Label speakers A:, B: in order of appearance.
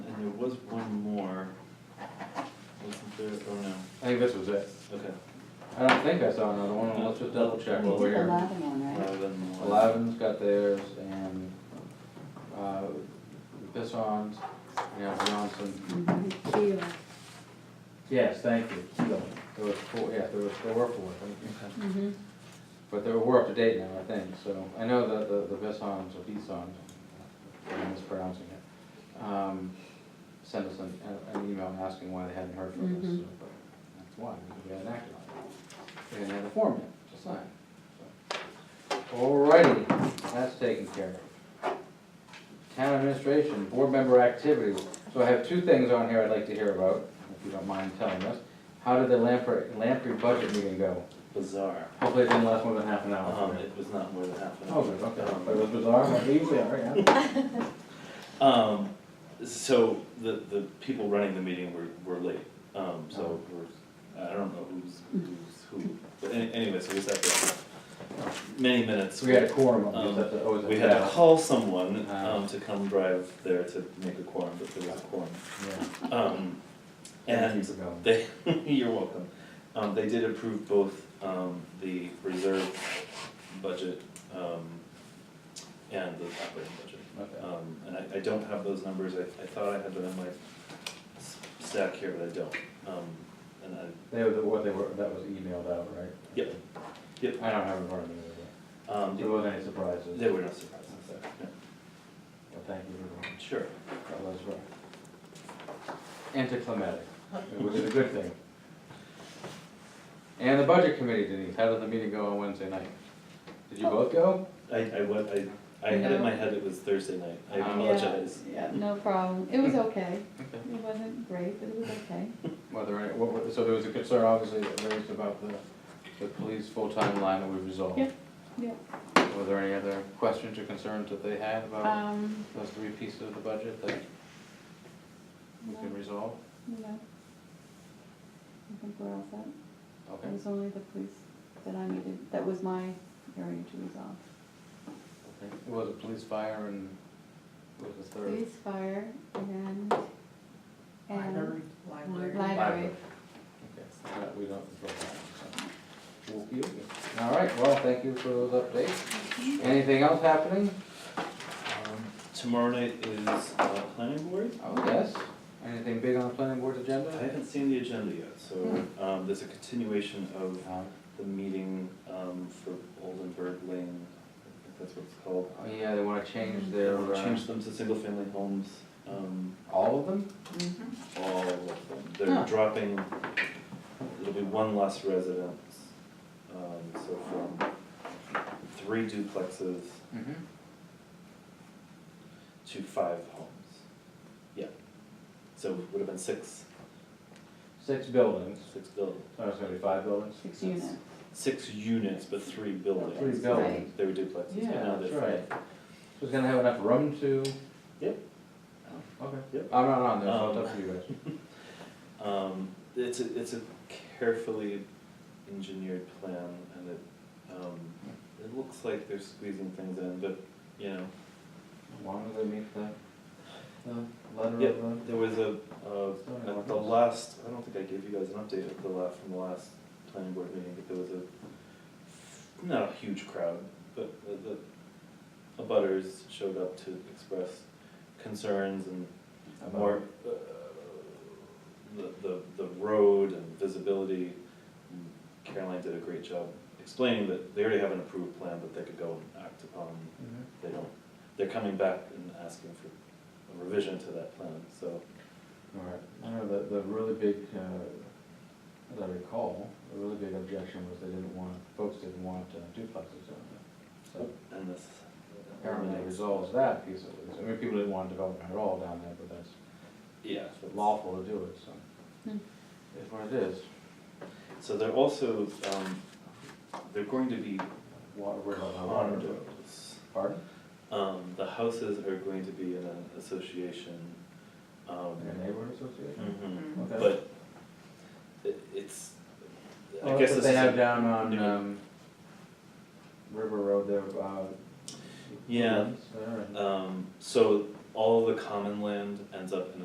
A: was one more. Wasn't there, oh no,
B: I think this was it.
A: okay,
B: I don't think I saw another one, let's just double check
C: We
B: over
C: did the
B: here.
C: lava one, right?
A: eleven was.
B: Eleven's got theirs and, uh, this one's, yeah, Johnson.
C: Mhm. Sheila.
B: Yes, thank you, so, there was four, yeah, there was, there were four, thank you.
A: Okay.
C: Mhm.
B: But they're, we're up to date now, I think, so, I know that the, the Vissons or Vissons, I'm mispronouncing it, um, sent us an, an email asking why they hadn't heard from us,
C: Mhm.
B: so, but that's why, because we hadn't acted on it. They didn't have a form yet to sign, so. Alrighty, that's taken care of. Town administration, board member activities, so I have two things on here I'd like to hear about, if you don't mind telling us. How did the Lamprey, Lamprey budget meeting go?
A: Bizarre,
B: Hopefully it didn't last more than half an hour.
A: um, it was not more than half an
B: Oh,
A: hour.
B: good, okay, but it was bizarre, but they usually are, yeah.
A: Um, so the, the people running the meeting were, were late, um,
B: Oh.
A: so we're, I don't know who's, who's who, but any- anyway, so we sat there many minutes.
B: So we had a quorum, of
A: Um,
B: these, that's always a
A: We had to
B: bad-
A: call someone,
B: Ah.
A: um, to come drive there to make a quorum, but there was a quorum.
B: yeah.
A: Um,
B: Thank
A: and
B: you for going.
A: they, you're welcome, um, they did approve both, um, the reserve budget, um, and the operating budget.
B: Okay.
A: Um, and I, I don't have those numbers, I, I thought I had them in my s- stack here, but I don't, um, and I,
B: They were, the- what they were, that was emailed out, right?
A: Yep. Yep.
B: I don't have it in front of me, but
A: um,
B: there wasn't any surprises,
A: there were no surprises there, yeah,
B: but thank you for going.
A: sure.
B: That was right. Anticlimactic, which is a good thing. And the budget committee, Denise, how did the meeting go on Wednesday night? Did
C: Oh.
B: you both go?
A: I, I, wa- I, I had it in my head it was Thursday night, I
C: Ah.
B: Um,
A: apologize.
C: Yeah, no problem. It was okay.
A: Okay.
C: It wasn't great, but it was okay.
B: Were there any, what, were- so there was a concern obviously that raised about the, the police full-time line that we resolved.
C: Yep, yep.
B: Were there any other questions or concerns that they had about
C: Um,
B: those three pieces of the budget that we can
C: No.
B: resolve?
C: no. I think we're all set.
B: Okay,
C: It was only the police that I needed, that was my area to resolve.
B: okay. It was a police fire and what was the third?
C: Police, fire, and, and.
D: Library.
C: Library.
B: Okay, so that we don't control that, so. Okey dokey. All right, well, thank you for those updates. Anything else happening?
A: Um, Tomorrow night is, uh, planning board,
B: Oh, yes. Anything big on the planning board's agenda?
A: I haven't seen the agenda yet, so, um, there's a continuation of
B: Um,
A: the meeting, um, for Oldenburg Lane, I think that's what it's called.
B: Oh, yeah, they wanna change their, uh,
A: Change them to single-family homes, um,
B: all of them?
A: all of them.
B: Huh.
A: They're dropping, it'll be one less residence, um, so from three duplexes
B: Mm-hmm.
A: to five homes. Yeah, so it would have been six,
B: Six buildings,
A: six buildings,
B: oh, it's gonna be five buildings?
C: Six units.
A: six units, but three buildings.
B: Three buildings.
A: They were duplexes, but
B: Yeah,
A: now
B: that's
A: they're
B: right.
A: five.
B: So it's gonna have enough room to?
A: Yep.
B: Oh, Okay.
A: Yep.
B: I'm not on there, so it's
A: Um,
B: up to you guys.
A: Um, it's a, it's a carefully engineered plan and it, um, it looks like they're squeezing things in, but, you know,
B: As long as they meet the, the letter
A: Yep,
B: of
A: there was a, uh,
B: Zoning
A: at the
B: ordinance.
A: last, I don't think I gave you guys an update of the last, from the last planning board meeting, but there was a, not a huge crowd, but the, the abutters showed up to express concerns and
B: the.
A: more, uh, the, the, the road and visibility. Caroline did a great job explaining that they already have an approved plan that they could go and act upon.
B: Mhm.
A: They don't, they're coming back and asking for a revision to that plan, so.
B: All right, I know the, the really big, uh, as I recall, the really big objection was they didn't want, folks didn't want uh, duplexes on there. So
A: And this. um,
B: apparently it resolves that piece of it. I mean, people didn't want development at all down there, but that's
A: Yeah.
B: it's lawful to do it, so.
C: Hmm.
B: It's what it is.
A: So they're also, um, they're going to be
B: Water, we're not allowed to do it.
A: condos.
B: Pardon?
A: Um, the houses are going to be in an association, um.
B: Like a neighborhood association?
A: mhm.
B: Okay.
A: But it, it's, I
B: Well,
A: guess
B: that's what
A: this
B: they
A: is,
B: have
A: a-
B: down on,
A: new-
B: um, River Road there, uh.
A: Yeah.
B: Woodlands there and-
A: um, so all the common land ends up in